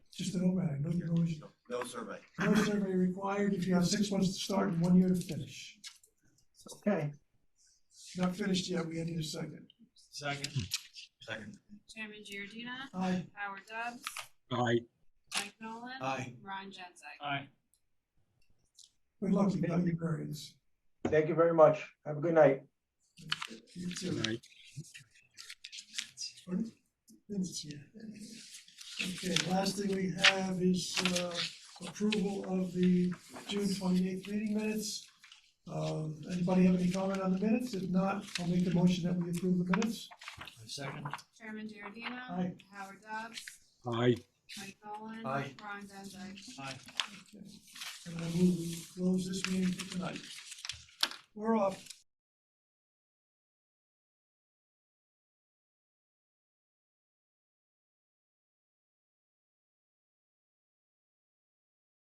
just an overhang, no, no, No survey. no survey required if you have six months to start and one year to finish. Okay, Not finished yet, we need a second. Second. Second. Chairman Giordina, Aye, Howard Dubs, aye, Mike Nolan, Aye. Ron Genzeg. Aye. we're lucky, we got your variance. thank you very much. Have a good night. You too. aye. Vince here. Okay, last thing we have is uh, approval of the June twenty-eighth meeting minutes. Um, Anybody have any comment on the minutes? If not, I'll make the motion that we approve the minutes. Second. Chairman Giordina, Aye. Howard Dubs, Aye, Mike Nolan, Aye. Ron Genzeg. Aye. And I move we close this meeting for tonight. We're off.